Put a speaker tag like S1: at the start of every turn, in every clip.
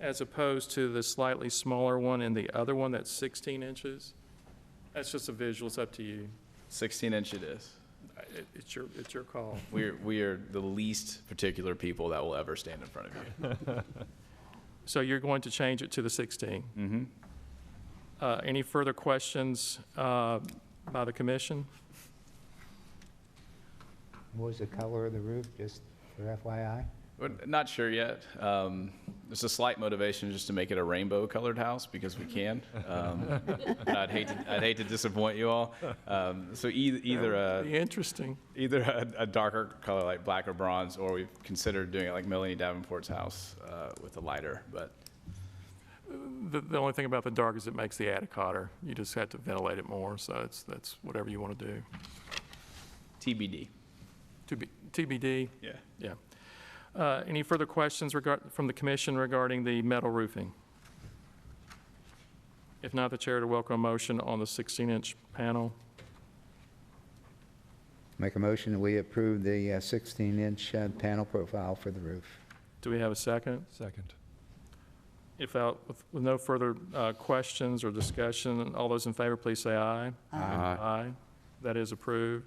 S1: as opposed to the slightly smaller one and the other one that's 16 inches? That's just a visual, it's up to you.
S2: 16 inch it is.
S1: I- it- It's your, it's your call.
S2: We're, we are the least particular people that will ever stand in front of you.
S1: So you're going to change it to the 16? Mm-hmm. Any further questions uh, by the commission?
S3: What was the color of the roof, just for FYI?
S2: We're not sure yet. Um, there's a slight motivation just to make it a rainbow colored house because we can. Um, but I'd hate to, I'd hate to disappoint you all. Um, so either, either a,
S1: Be interesting.
S2: either a, a darker color like black or bronze, or we've considered doing it like Melanie Davenport's house uh, with a lighter. But
S1: The, the only thing about the dark is it makes the attic hotter. You just have to ventilate it more, so it's, that's whatever you want to do.
S2: TBD.
S1: To be- TBD,
S2: Yeah.
S1: yeah. Uh, Any further questions regard, from the commission regarding the metal roofing? If not, the chair to welcome a motion on the 16-inch panel.
S3: Make a motion that we approve the uh, 16-inch uh, panel profile for the roof.
S1: Do we have a second?
S4: Second.
S1: If out, with with no further uh, questions or discussion, all those in favor, please say aye. Aye. That is approved.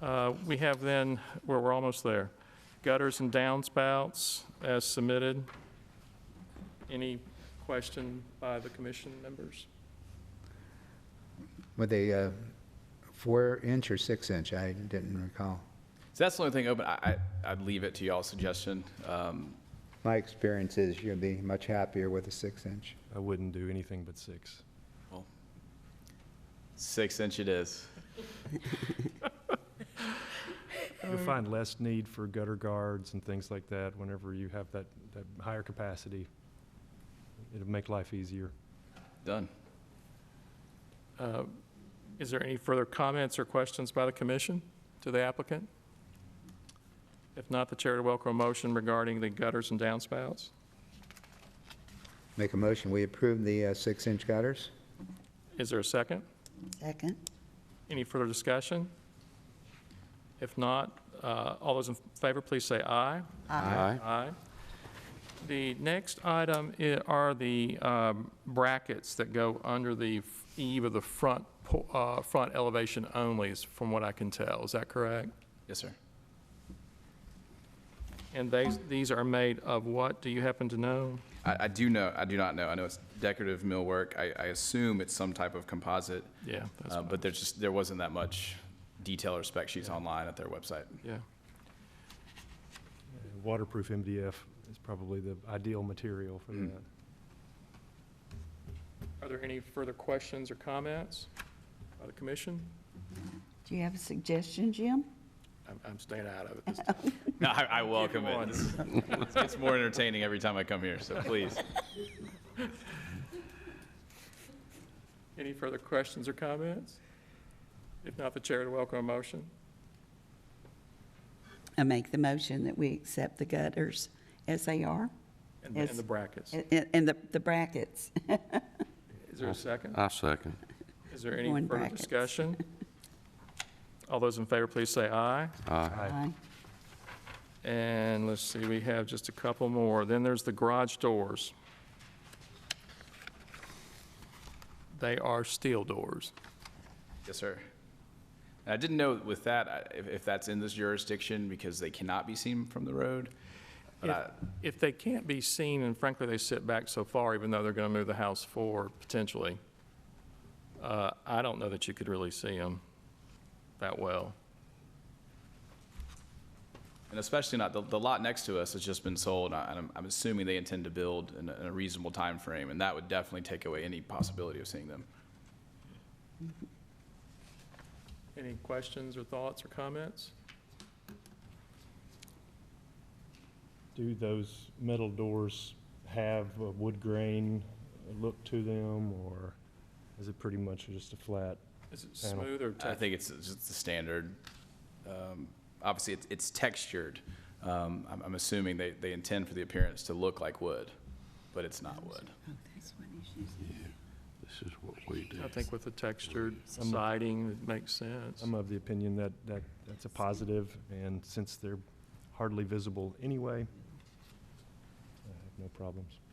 S1: Uh, We have then, we're, we're almost there. Gutters and downspouts as submitted. Any question by the commission members?
S3: Were they uh, four inch or six inch? I didn't recall.
S2: So that's the only thing open. I, I, I'd leave it to y'all's suggestion. Um,
S3: My experience is you'll be much happier with a six inch.
S4: I wouldn't do anything but six.
S2: six inch it is.
S4: You'll find less need for gutter guards and things like that whenever you have that, that higher capacity. It'll make life easier.
S2: Done.
S1: Uh, Is there any further comments or questions by the commission to the applicant? If not, the chair to welcome a motion regarding the gutters and downspouts.
S3: Make a motion, we approve the uh, six inch gutters?
S1: Is there a second?
S5: Second.
S1: Any further discussion? If not, uh, all those in favor, please say aye.
S5: Aye.
S1: Aye. The next item i- are the um, brackets that go under the eave of the front, po- uh, front elevation only, is from what I can tell. Is that correct?
S2: Yes, sir.
S1: And they, these are made of what? Do you happen to know?
S2: I, I do know. I do not know. I know it's decorative millwork. I, I assume it's some type of composite,
S1: Yeah, that's,
S2: uh, but there's just there wasn't that much detail or spec sheets online at their website.
S1: yeah.
S4: And Waterproof MDF is probably the ideal material for
S2: Mm.
S4: that.
S1: Are there any further questions or comments by the commission?
S5: Do you have a suggestion, Jim?
S1: I'm- I'm staying out of it this time.
S2: No, I, I welcome
S1: Come
S2: it.
S1: on.
S2: It's, it's more entertaining every time I come here. So please.
S1: Any further questions or comments? If not, the chair to welcome a motion.
S5: I make the motion that we accept the gutters as they are,
S1: And the- and
S5: Yes.
S1: the brackets.
S5: and- and and the the brackets.
S1: Is there a second?
S6: I second.
S1: Is there any
S5: Going
S1: further
S5: brackets.
S1: discussion? All those in favor, please say aye.
S6: Aye.
S5: Aye.
S1: And let's see, we have just a couple more. Then there's the garage doors. They are steel doors.
S2: Yes, sir. And I didn't know with that I- if, if that's in this jurisdiction because they cannot be seen from the road. But
S1: If-
S2: I,
S1: If they can't be seen, and frankly, they sit back so far, even though they're going to move the house forward potentially, uh, I don't know that you could really see them that well.
S2: And especially not, the, the lot next to us has just been sold, and I'm, I'm assuming they intend to build in a, in a reasonable timeframe, and that would definitely take away any possibility of seeing them.
S1: Any questions or thoughts or comments?
S4: Do those metal doors have a wood grain look to them, or is it pretty much just a flat?
S1: Is it
S4: Panel.
S1: smooth or
S2: I
S1: tough?
S2: think it's just the standard, um, obviously, it's, it's textured. Um, I'm, I'm assuming they, they intend for the appearance to look like wood, but it's not wood.
S5: Oh, that's what he's using.
S6: This is what we do.
S1: I think with the textured
S4: Some-
S1: siding, it makes sense.
S4: I'm of the opinion that, that that's a positive, and since they're hardly visible anyway, I have no problems.